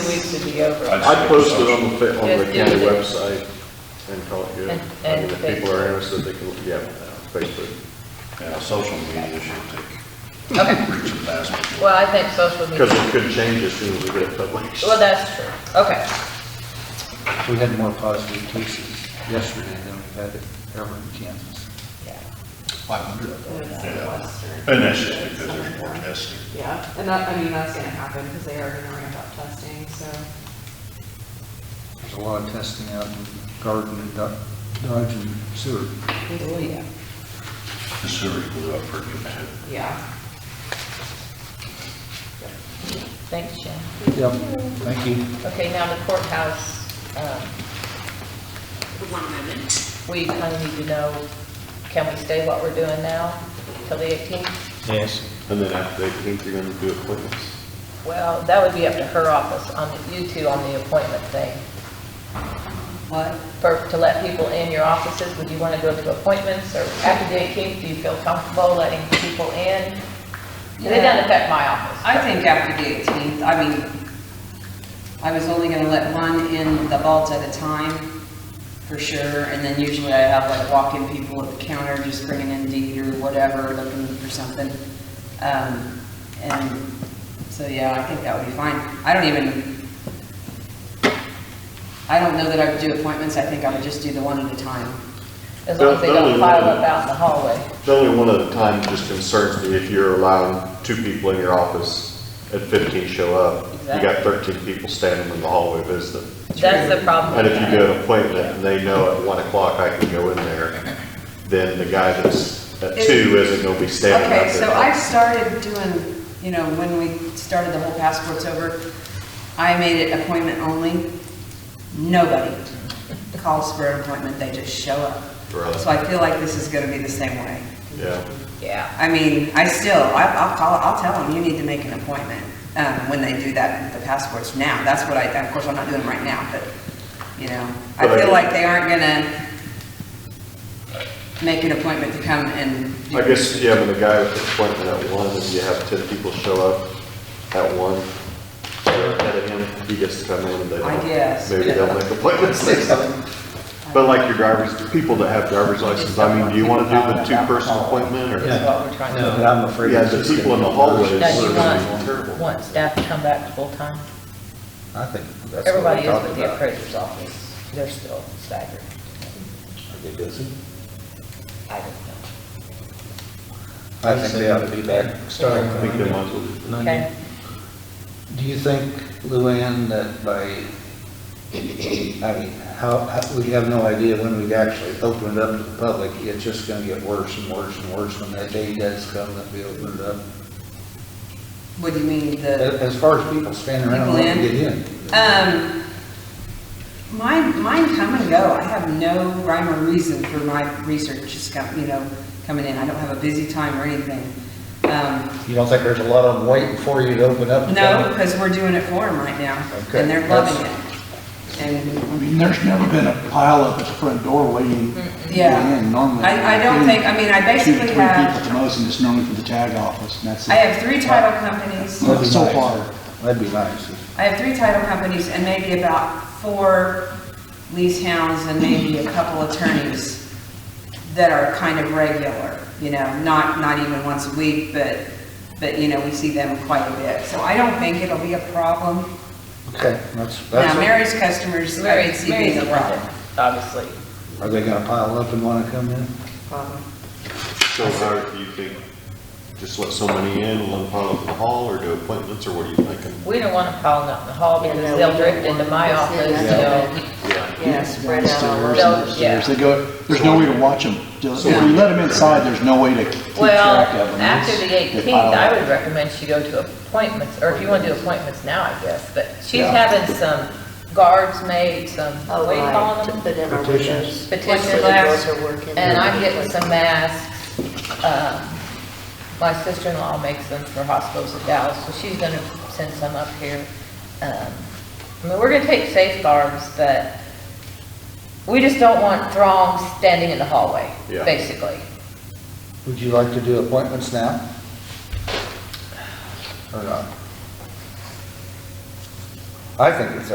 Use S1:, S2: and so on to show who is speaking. S1: weeks would be over.
S2: I'd-
S3: I post it on the, fa- on the
S1: Yeah.
S3: county website and call it good.
S1: And-
S3: I mean, if
S1: and
S3: people are interested, they can, yeah, Facebook.
S2: Yeah, social media should take,
S1: Okay.
S2: reach and pass it.
S1: Well, I think social media,
S3: Because it could change as soon as we get it published.
S1: well, that's true. Okay.
S4: We had more positive cases yesterday than we've had ever in Kansas.
S5: Yeah.
S4: Five hundred of them.
S2: Yeah. And that's just because there's more testing.
S5: Yeah, and that, I mean, that's gonna happen, because they are gonna ramp up testing, so.
S4: There's a lot of testing out in Garden and Dod- Dodge and Seward.
S1: Oh,
S5: Yeah.
S2: The sewer blew up pretty good too.
S5: Yeah.
S1: Thanks, Jen.
S4: Yep, thank you.
S1: Okay, now the courthouse, um,
S6: One moment.
S1: we kind of need to know, can we stay what we're doing now till the 18th?
S4: Yes.
S3: And then after they think you're gonna do appointments.
S1: Well, that would be up to her office, on the- you two on the appointment thing.
S5: What?
S1: For, to let people in your offices, would you want to go to appointments or after the 18th, do you feel comfortable letting people in? And it doesn't affect my office.
S7: I think after the 18th, I mean, I was only going to let one in the vault at a time, for sure, and then usually I have like walk-in people at the counter, just bringing in deed or whatever, looking for something. Um, And so, yeah, I think that would be fine. I don't even, I don't know that I would do appointments, I think I would just do the one at a time.
S1: As long as they don't
S3: Don't- don't-
S1: pile up out in the hallway.
S3: The only one at a time just concerns me if you're allowing two people in your office and 15 show up. You got 13 people standing in the hallway visiting.
S1: That's the problem.
S3: And if you
S1: with
S3: get
S1: that.
S3: an appointment and they know at 1 o'clock I can go in there, then the guy that's at 2 isn't going to be standing out there.
S7: Okay, so I started doing, you know, when we started the whole passports over, I made it appointment only. Nobody calls for an appointment, they just show up.
S3: Really?
S7: So I feel like this is gonna be the same way.
S3: Yeah.
S1: Yeah,
S7: I mean, I still, I- I'll call, I'll tell them, you need to make an appointment, um, when they do that, the passports now. That's what I, of course, I'm not doing them right now, but, you know, I
S3: But I-
S7: feel like they aren't gonna make an appointment to come and. do
S3: I guess, yeah, when the guy with the appointment at one, and you have ten people show up at one, they're ahead of him, he gets to come in and they
S7: I
S3: don't-
S7: guess,
S3: Maybe
S7: yeah.
S3: they'll make appointments next time. But like your drivers, people that have driver's licenses, I mean, do you wanna do the two-person appointment, or?
S1: that's what we're trying
S4: No, but
S1: to.
S4: I'm afraid.
S3: Yeah,
S4: it's
S3: the
S4: just
S3: people in
S4: gonna
S3: the
S4: be
S3: hallways
S1: Now,
S3: are
S1: you
S3: gonna be
S1: want-
S3: terrible.
S1: Want staff to come back to full-time?
S4: I think that's what we're
S1: Everybody is
S4: talking
S1: with the
S4: about.
S1: appraiser's office, they're still staggered. I don't know.
S4: I think they ought to be back starting
S3: I think they might as well do it.
S4: Monday.
S1: Okay,
S4: Do you think, Luann, that by, I mean, how, how- we have no idea when we'd actually open it up to the public. It's just going to get worse and worse and worse when that day does come that we open it up.
S7: What do you mean, the?
S4: As far as people standing around
S7: People in?
S4: wanting to get in.
S7: Um, mine, mine come and go. I have no rhyme or reason for my research is com you know, coming in. I don't have a busy time or anything. Um,
S4: You don't think there's a lot of them waiting for you to open up? and
S7: no,
S4: come?
S7: because we're doing it for them right now,
S4: Okay,
S7: and they're
S4: that's-
S7: loving it.
S8: I
S7: And,
S8: mean, there's never been a pileup at the front door waiting.
S7: yeah.
S8: Normally.
S7: I, I don't think, I mean, I
S8: Two to
S7: basically
S8: three people at the
S7: have,
S8: most, and it's normally for the tag office, and that's it.
S7: I have three title companies.
S4: That'd be
S8: So
S4: nice.
S8: far.
S4: That'd be nice. if-
S7: I have three title companies and maybe about four lease hounds and maybe a couple attorneys that are kind of regular, you know, not, not even once a week, but, but, you know, we see them quite a bit. So I don't think it'll be a problem.
S4: Okay, that's,
S7: Now,
S4: that's,
S7: Mary's customers, I
S1: Mary,
S7: could see
S1: Mary's
S7: being
S1: a
S7: a problem.
S1: obviously.
S4: are they going to pile up and want to come in?
S3: So how do you think, just let so many in, one pile up in the hall, or do appointments, or what are you thinking?
S1: We don't want them piling up in the hall
S6: Yeah,
S1: because
S6: no,
S1: they'll
S6: we
S1: drift
S6: don't
S1: into my
S6: want
S1: office, you
S6: them. Yeah.
S1: know.
S6: Yeah, spread out all
S8: Downstairs
S6: over.
S8: and
S1: No,
S8: upstairs.
S1: yeah.
S8: They go, there's no way to watch them. If you let them inside, there's no way to keep
S1: Well,
S8: track of them.
S1: after
S8: It's-
S1: the
S8: they
S1: 18th,
S8: pile
S1: I
S8: up.
S1: would recommend she go to appointments, or if you want to do appointments now, I guess, but she's
S8: Yeah.
S1: having some guards made, some,
S6: Oh,
S1: what do you call
S6: right, to
S1: them?
S6: put in our windows.
S1: Petition
S6: Ones
S1: last,
S6: that the girls are working.
S1: and I'm getting some masks. Um, My sister-in-law makes them for hospitals in Dallas, so she's gonna send some up here. Um, I mean, we're gonna take safeguards, but we just don't want throngs standing in the hallway,
S3: Yeah.
S1: basically.
S4: Would you like to do appointments now? Or not? I think it's